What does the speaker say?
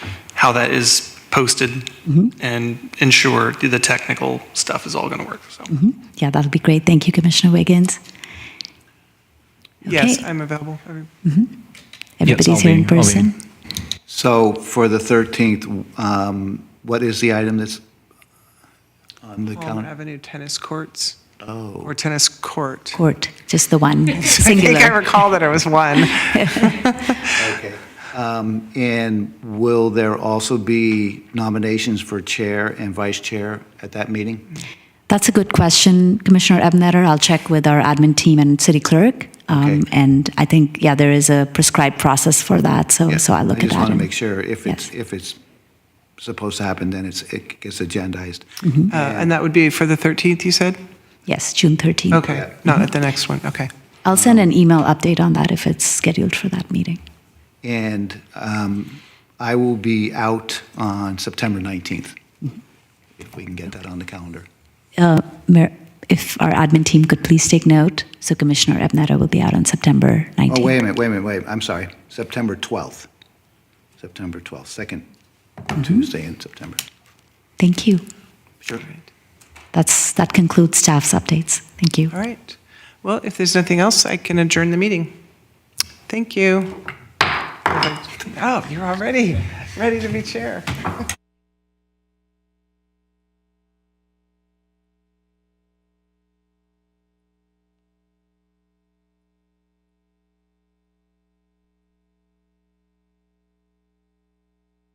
how that is posted and ensure the technical stuff is all going to work. So, Yeah, that'll be great. Thank you, Commissioner Wiggins. yes, Okay. I'm available. Everybody's I'll here be- in I'll be- person. So for the 13th, um, what is the item that's on the Palmer calendar? Avenue tennis courts. Oh. Or tennis court. Court, just the one, I think I singular. recall that it was one. Okay. Um, And will there also be nominations for chair and vice chair at that meeting? That's a good question, Commissioner Ebnetter. I'll check with our admin team and city clerk. Um, Okay. And I think, yeah, there is a prescribed process for that, so, Yeah, Oh, so I'll look at that. I just want to and- make sure if it's, Yes. if it's supposed to happen, then it's, it gets agendized. Mm-hmm. Uh, And that would be for the 13th, you said? Yes, June 13th. Okay, not at the next one, okay. I'll send an email update on that if it's scheduled for that meeting. And um, I will be out on September 19th, Mm-hmm. if we can get that on the calendar. Uh, Mayor, If our admin team could please take note, so Commissioner Ebnetter will be out on September 19th. Oh, wait a minute, wait a minute, wait, I'm sorry, September 12th. September 12th, second Tuesday in September. Thank you. Sure. That's, that concludes staff's updates. Thank you. All right. Well, if there's nothing else, I can adjourn the meeting. Thank you. Oh, you're already ready to be chair.